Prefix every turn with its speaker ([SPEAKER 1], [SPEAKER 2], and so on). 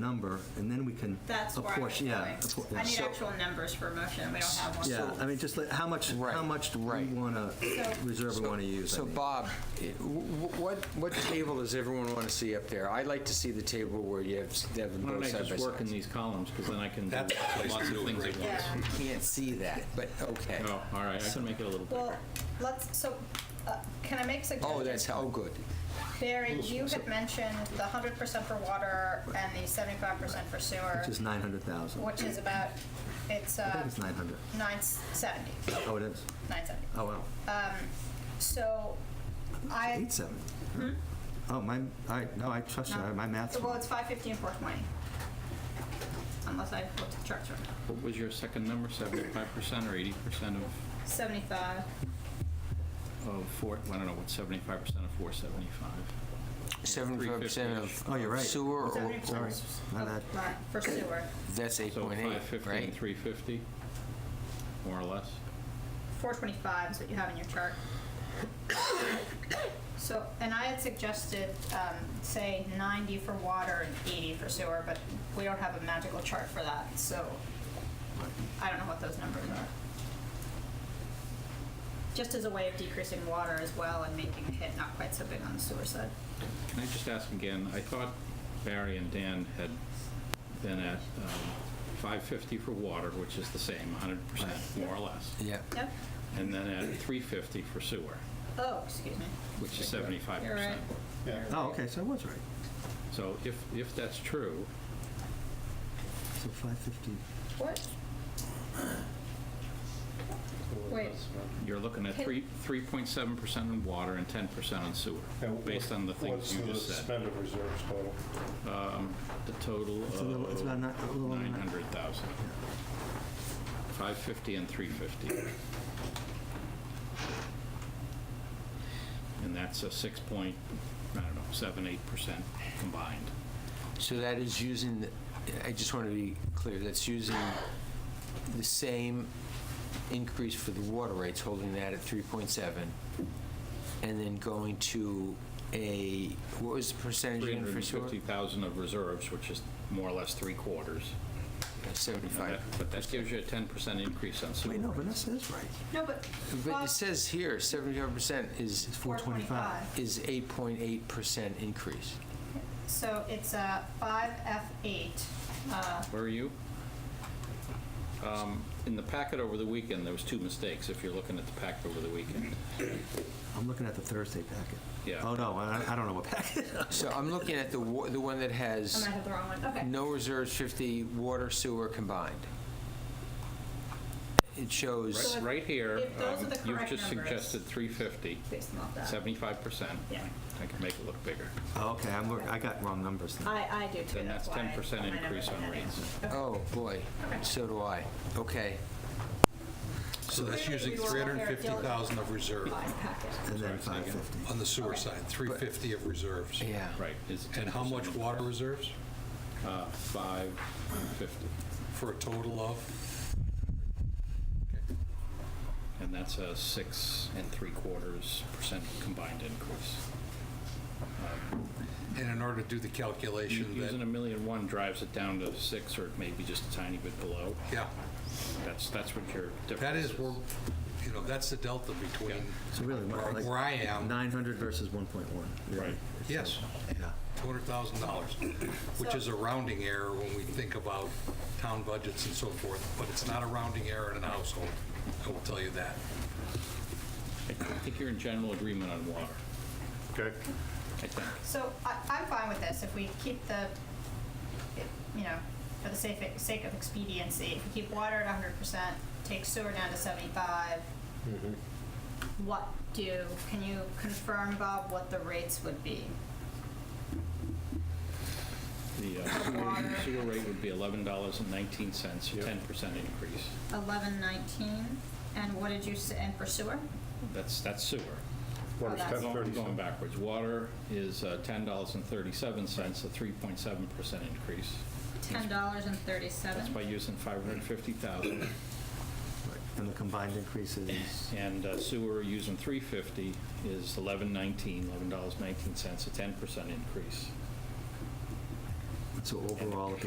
[SPEAKER 1] number, and then we can
[SPEAKER 2] That's where I was
[SPEAKER 1] apportion,
[SPEAKER 2] going.
[SPEAKER 1] yeah. appor-
[SPEAKER 2] I need
[SPEAKER 1] so-
[SPEAKER 2] actual numbers for motion, we don't have one.
[SPEAKER 1] Yeah, I mean, just like, how much, how
[SPEAKER 3] Right,
[SPEAKER 1] much do we
[SPEAKER 3] right.
[SPEAKER 1] want to reserve and want to use? I
[SPEAKER 3] So
[SPEAKER 1] mean.
[SPEAKER 3] Bob, i- wh- wh- what, what table does everyone want to see up there? I like to see the table where you have, s- have them
[SPEAKER 4] Why don't
[SPEAKER 3] both
[SPEAKER 4] I
[SPEAKER 3] side by
[SPEAKER 4] just work in
[SPEAKER 3] side.
[SPEAKER 4] these columns, because then I can do
[SPEAKER 5] That's the place to
[SPEAKER 4] lots
[SPEAKER 5] do
[SPEAKER 4] of
[SPEAKER 5] it,
[SPEAKER 4] things
[SPEAKER 5] right?
[SPEAKER 4] at once.
[SPEAKER 2] Yeah.
[SPEAKER 3] Can't see that, but okay.
[SPEAKER 4] Oh, all right, I can make it a little
[SPEAKER 2] Well,
[SPEAKER 4] bigger.
[SPEAKER 2] let's, so, uh, can I make suggestions?
[SPEAKER 3] Oh, that's, oh, good.
[SPEAKER 2] Barry, you had mentioned the hundred percent for water and the seventy-five percent for sewer,
[SPEAKER 1] Which is 900,000.
[SPEAKER 2] which is about, it's,
[SPEAKER 1] I think
[SPEAKER 2] uh,
[SPEAKER 1] it's 900.
[SPEAKER 2] nine seventy,
[SPEAKER 1] Oh, it is?
[SPEAKER 2] nine seventy. Um,
[SPEAKER 1] Oh, wow.
[SPEAKER 2] So, I, Hmm?
[SPEAKER 1] 870. Oh, my, all right, no, I trust you, I- my math's
[SPEAKER 2] well,
[SPEAKER 1] wrong.
[SPEAKER 2] it's five fifty and four twenty. Unless I looked at the charts wrong.
[SPEAKER 4] What was your second number, seventy-five percent or eighty percent of,
[SPEAKER 2] Seventy-five,
[SPEAKER 4] of four, I don't know, what's seventy-five percent of four seventy-five?
[SPEAKER 3] Seventy-five percent of.
[SPEAKER 1] Oh, you're right.
[SPEAKER 3] Sewer, or-
[SPEAKER 2] seventy
[SPEAKER 1] Sorry,
[SPEAKER 2] percent
[SPEAKER 1] my bad.
[SPEAKER 2] for sewer,
[SPEAKER 3] that's eight
[SPEAKER 4] So
[SPEAKER 3] point eight,
[SPEAKER 4] five fifty
[SPEAKER 3] right?
[SPEAKER 4] and three fifty, more or less.
[SPEAKER 2] four twenty-five is what you have in your chart. So, and I had suggested, um, say ninety for water and eighty for sewer, but we don't have a magical chart for that, so I don't know what those numbers are. Just as a way of decreasing water as well and making the hit not quite so big on the sewer side.
[SPEAKER 4] Can I just ask again, I thought Barry and Dan had been at um, five fifty for water, which is the same, hundred percent, more or less,
[SPEAKER 3] Yeah.
[SPEAKER 2] Yep.
[SPEAKER 4] and then at three fifty for sewer,
[SPEAKER 2] Oh, excuse me.
[SPEAKER 4] which is seventy-five
[SPEAKER 2] You're right.
[SPEAKER 4] percent.
[SPEAKER 1] Oh, okay, so I was right.
[SPEAKER 4] So if, if that's true,
[SPEAKER 1] So 550,
[SPEAKER 2] What? Wait,
[SPEAKER 4] You're looking at
[SPEAKER 2] Can-
[SPEAKER 4] three, 3.7% on water and 10% on sewer, based on the things you just said.
[SPEAKER 5] What's the suspended reserves total?
[SPEAKER 4] Um, The total
[SPEAKER 1] It's a little- it's
[SPEAKER 4] of
[SPEAKER 1] about ni- a little under nine-
[SPEAKER 4] 900,000. 550 and 350. And that's a 6 point, I don't know, 7, 8% combined.
[SPEAKER 3] So that is using, the- I just want to be clear, that's using the same increase for the water rates, holding that at 3.7, and then going to a, what was the percentage again for sewer?
[SPEAKER 4] 350,000 of reserves, which is more or less three quarters. And
[SPEAKER 3] 75.
[SPEAKER 4] that- But that gives you a 10% increase on sewer.
[SPEAKER 1] wait, no,
[SPEAKER 4] rates.
[SPEAKER 1] Vanessa is right.
[SPEAKER 2] no, but.
[SPEAKER 3] But
[SPEAKER 2] Bob-
[SPEAKER 3] it says here, 75% is,
[SPEAKER 1] It's 425.
[SPEAKER 3] is 8.8% increase.
[SPEAKER 2] So it's a five F eight. Uh,
[SPEAKER 4] Where are you? Um, In the packet over the weekend, there was two mistakes, if you're looking at the packet over the weekend.
[SPEAKER 1] I'm looking at the Thursday packet.
[SPEAKER 4] Yeah.
[SPEAKER 1] Oh, no, I I don't know what packet.
[SPEAKER 3] So I'm looking at the, wa- the one that
[SPEAKER 2] I
[SPEAKER 3] has
[SPEAKER 2] might have the wrong one, okay.
[SPEAKER 3] no reserves, 50, water, sewer combined. It shows.
[SPEAKER 2] So
[SPEAKER 4] Right- Right here,
[SPEAKER 2] if those
[SPEAKER 4] um,
[SPEAKER 2] are the
[SPEAKER 4] you've
[SPEAKER 2] correct
[SPEAKER 4] just
[SPEAKER 2] numbers-
[SPEAKER 4] suggested 350,
[SPEAKER 2] Based them off that.
[SPEAKER 4] 75%.
[SPEAKER 2] Yeah.
[SPEAKER 4] I can make it look bigger.
[SPEAKER 1] Oh, Okay, I'm, look- I got wrong numbers then.
[SPEAKER 2] I, I do too,
[SPEAKER 4] Then
[SPEAKER 2] that's
[SPEAKER 4] that's
[SPEAKER 2] why. I
[SPEAKER 4] 10%
[SPEAKER 2] might have
[SPEAKER 4] increase
[SPEAKER 2] written
[SPEAKER 4] on
[SPEAKER 2] that in.
[SPEAKER 4] rates.
[SPEAKER 2] Okay.
[SPEAKER 3] Oh, boy.
[SPEAKER 2] Okay.
[SPEAKER 3] So do I. Okay.
[SPEAKER 5] So that's
[SPEAKER 2] Clearly,
[SPEAKER 5] using
[SPEAKER 2] we were all very
[SPEAKER 5] 350,000 of reserve
[SPEAKER 2] Buy packet.
[SPEAKER 1] And then
[SPEAKER 4] Sorry, say again.
[SPEAKER 1] 550.
[SPEAKER 5] on the sewer side, 350 of reserves.
[SPEAKER 3] Yeah.
[SPEAKER 4] Right. is
[SPEAKER 5] And how
[SPEAKER 4] 10%
[SPEAKER 5] much
[SPEAKER 4] increase.
[SPEAKER 5] water reserves
[SPEAKER 4] Uh, 550.
[SPEAKER 5] for a total of?
[SPEAKER 4] And that's a 6 and 3 quarters percent combined increase.
[SPEAKER 5] And in order to do the
[SPEAKER 4] U-
[SPEAKER 5] calculation
[SPEAKER 4] Using a
[SPEAKER 5] that,
[SPEAKER 4] million one drives it down to 6 or maybe just a tiny bit below.
[SPEAKER 5] yeah,
[SPEAKER 4] That's, that's what your difference
[SPEAKER 5] that is where, you know, that's the delta between
[SPEAKER 1] So really, what, like-
[SPEAKER 5] where I am,
[SPEAKER 1] 900 versus 1.1. really.
[SPEAKER 4] Right.
[SPEAKER 5] yes,
[SPEAKER 1] Yeah.
[SPEAKER 5] $200,000, which is a rounding error when we think about town budgets and so forth, but it's not a rounding error in a household, I will tell you that.
[SPEAKER 4] I think you're in general agreement on water,
[SPEAKER 5] Okay.
[SPEAKER 4] I think.
[SPEAKER 2] So I, I'm fine with this, if we keep the, it- you know, for the sake, sake of expediency, if we keep water at hundred percent, take sewer down to seventy-five. What do, can you confirm, Bob, what the rates would be?
[SPEAKER 4] The uh, sewer- sewer rate would be eleven dollars and nineteen cents, a ten percent increase.
[SPEAKER 2] Eleven nineteen, and what did you say, and for sewer?
[SPEAKER 4] That's, that's sewer.
[SPEAKER 2] Water's
[SPEAKER 4] I'm Going going backwards, water is uh, ten dollars and thirty-seven cents, a three point seven percent increase.
[SPEAKER 2] Ten dollars and
[SPEAKER 4] That's by
[SPEAKER 2] thirty-seven.
[SPEAKER 4] using five hundred and fifty thousand,
[SPEAKER 1] And the combined increases,
[SPEAKER 4] and uh, sewer using three fifty is eleven nineteen, eleven dollars nineteen cents, a ten percent increase.
[SPEAKER 1] So overall, at the